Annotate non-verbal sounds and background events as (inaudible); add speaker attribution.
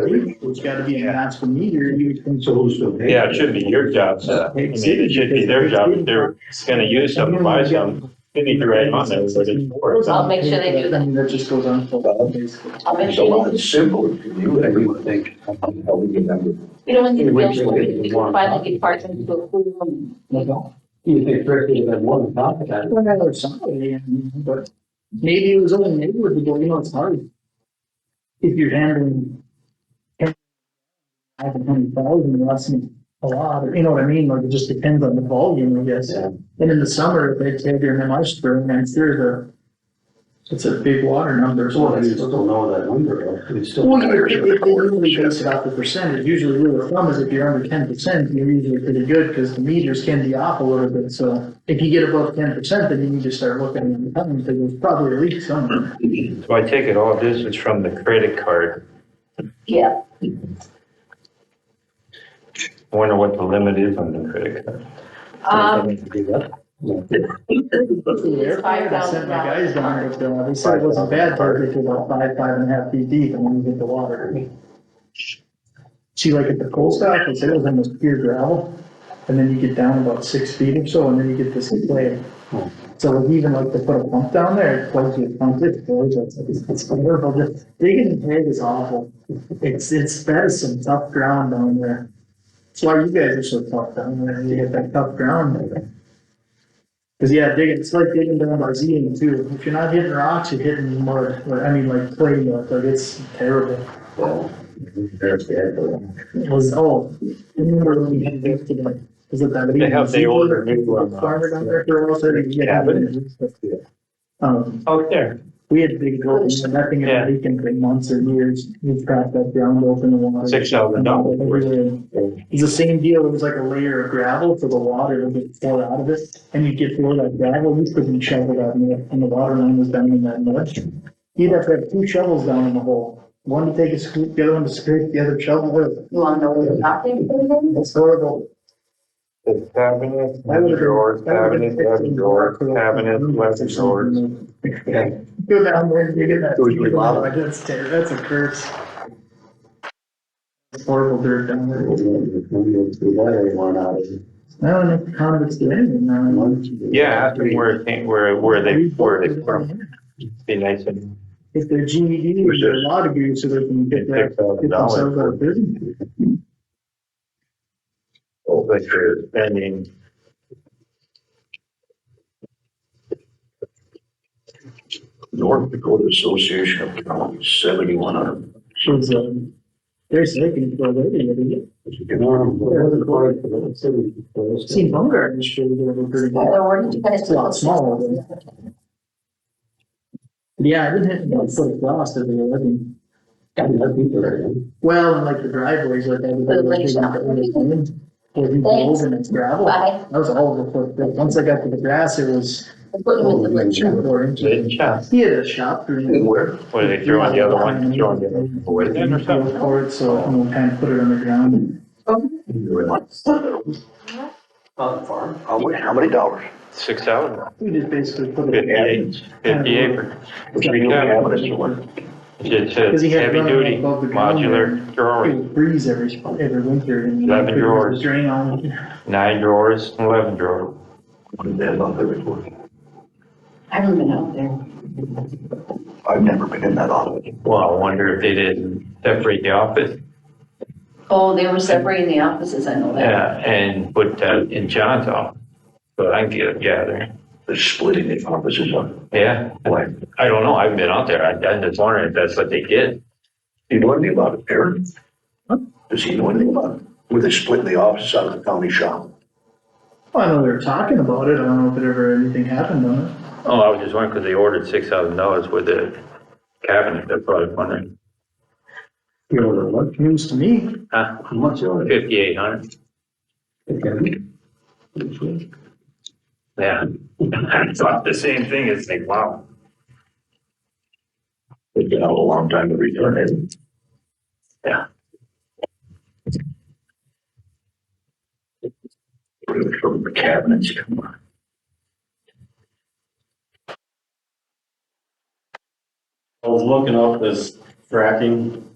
Speaker 1: It's gotta be announced from here, you can choose to.
Speaker 2: Yeah, it should be your job, so, I mean, it should be their job, if they're gonna use something, buy something, they need to write on there, what it's for.
Speaker 3: I'll make sure they do that.
Speaker 1: That just goes on. for-
Speaker 3: I'll make
Speaker 4: It's a lot
Speaker 3: sure,
Speaker 4: simpler for you, I would think, on how we remember.
Speaker 3: you know, when these
Speaker 5: It would
Speaker 3: bills,
Speaker 5: be-
Speaker 3: we can finally get parts and people approve them.
Speaker 5: You think first you have one talk about it.
Speaker 1: Well, or somebody, I mean, but maybe it was only neighborhood, but you know, it's hard. If you're handling. I have a hundred thousand, that's a lot, or you know what I mean, like it just depends on the volume, I guess.
Speaker 5: Yeah.
Speaker 1: And in the summer, if they take your MI spring, I'm sure the, it's a big water number, so.
Speaker 5: Well,
Speaker 1: it's-
Speaker 5: you still don't know that number, though. You still.
Speaker 1: Well, you're, it it really base it off the percentage, usually rule of thumb is if you're under ten percent, you're usually pretty good, because the meters can be off a little bit, so. If you get above ten percent, then you need to start looking at the time, because there's probably a leak somewhere.
Speaker 2: So I take it all this is from the credit card,
Speaker 3: Yeah,
Speaker 2: I wonder what the limit is on the credit card.
Speaker 3: um,
Speaker 5: Something to do that.
Speaker 3: it's five
Speaker 1: I
Speaker 3: thousand
Speaker 1: sent my
Speaker 3: dollars.
Speaker 1: guys down there, so they said it wasn't bad, but it was about five, five and a half feet deep, and when you get the water. See, like at the coal stop, they said it was almost pure gravel, and then you get down about six feet or so, and then you get this clay.
Speaker 5: Hmm.
Speaker 1: So even like they put a pump down there, it plugs you, pumps it, goes, it's, it's it's wonderful, just digging in pit is awful. It's, it's, that is some tough ground down there. That's why you guys are so tough down there, you hit that tough ground. Cause yeah, digging, it's like digging down Barzini too, if you're not hitting rocks, you're hitting mud, or, I mean, like clay mud, like it's terrible.
Speaker 4: Well, There's that.
Speaker 1: It was, oh, remember when we had this today? Is it that?
Speaker 2: They have the older new one. uh,
Speaker 1: Farmer down there for all thirty.
Speaker 2: Yeah,
Speaker 1: Um,
Speaker 2: Out there.
Speaker 1: we had big goals, and nothing
Speaker 2: Yeah.
Speaker 1: had leaked for months or years, we cracked that ground open and water. uh,
Speaker 2: Six thousand dollars worth.
Speaker 1: It's the same deal, it was like a layer of gravel for the water to get poured out of it, and you get through that gravel, we couldn't shovel that, and the- and the water line was down in that mud. You'd have to have two shovels down in the hole, one to take a scoop, the other one to scrape the other shovel with.
Speaker 3: You wanna know what not there for them?
Speaker 1: It's horrible.
Speaker 2: It's cabinet, left drawer, cabinet, left drawer, cabinet, left drawer.
Speaker 1: Go down there and you get that.
Speaker 4: It was really loud.
Speaker 1: That's ter- that's a curse. It's horrible dirt down there. I don't know if convicts do anything now.
Speaker 2: Yeah, ask them where it came, where, where they, where they from, be nice and.
Speaker 1: If they're GED,
Speaker 2: Which
Speaker 1: they're
Speaker 2: is-
Speaker 1: law degree, so they can get that,
Speaker 2: Six
Speaker 1: get
Speaker 2: thousand
Speaker 1: themselves out
Speaker 2: dollars.
Speaker 1: of prison.
Speaker 2: That you're spending.
Speaker 4: North Dakota Association of Counties, seventy-one hundred.
Speaker 1: She's, um, they're sick and they're waiting every year. Seen Bumgarner, she's doing pretty good.
Speaker 3: They're working, you guys.
Speaker 1: It's a lot smaller than- Yeah, I didn't hit, you know, foot of frost every year, I mean. Well, and like the driveways, like everybody.
Speaker 3: The lake
Speaker 1: was digging
Speaker 3: shop.
Speaker 1: up everything, Where we
Speaker 3: Thanks.
Speaker 1: drove and it's gravel. That
Speaker 3: Bye.
Speaker 1: was all the, foot- but once I got to the grass, it was.
Speaker 3: I'm putting them in
Speaker 1: Oh,
Speaker 3: the lake shop.
Speaker 1: Four inches.
Speaker 2: Lid shop.
Speaker 1: He had a shop green.
Speaker 4: Where?
Speaker 2: What, they throw on the other one, throw on the other one away then or something?
Speaker 1: For it, so you know, kind of put it on the ground.
Speaker 4: How much, how many dollars?
Speaker 2: Six thousand.
Speaker 1: We just basically put it.
Speaker 2: Fifty-eight, fifty-eight for three cabinets. It
Speaker 1: Because
Speaker 2: says
Speaker 1: he had
Speaker 2: heavy
Speaker 1: running
Speaker 2: duty
Speaker 1: above the ground
Speaker 2: modular
Speaker 1: It
Speaker 2: drawing,
Speaker 1: would freeze every, sp- every winter. and
Speaker 2: Eleven
Speaker 1: there'd be
Speaker 2: drawers.
Speaker 1: Drain on.
Speaker 2: nine drawers, eleven drawer.
Speaker 4: What did that on the report?
Speaker 3: I haven't been out there.
Speaker 4: I've never been in that office.
Speaker 2: Well, I wonder if they didn't separate the office,
Speaker 3: Oh, they were separating the offices, I know
Speaker 2: uh,
Speaker 3: that.
Speaker 2: and put that in John's office. But I can get a gathering,
Speaker 4: They're splitting the offices up.
Speaker 2: yeah,
Speaker 4: Why?
Speaker 2: I don't know, I haven't been out there, I, I'm just wondering if that's what they did.
Speaker 4: Do you know anything about it, Aaron? Does he know anything about it? Were they splitting the offices out of the county shop?
Speaker 1: Well, I know they were talking about it. I don't know if it ever, anything happened on it.
Speaker 2: Oh, I was just wondering, because they ordered six thousand dollars with the cabinet, that's what I was wondering,
Speaker 1: News to me.
Speaker 2: huh, fifty-eight hundred, yeah. (laughs) I thought the same thing, it's like, wow.
Speaker 4: They've been out a long time to return it. Yeah. Really, From the cabinets, come on.
Speaker 6: I was looking up this fracking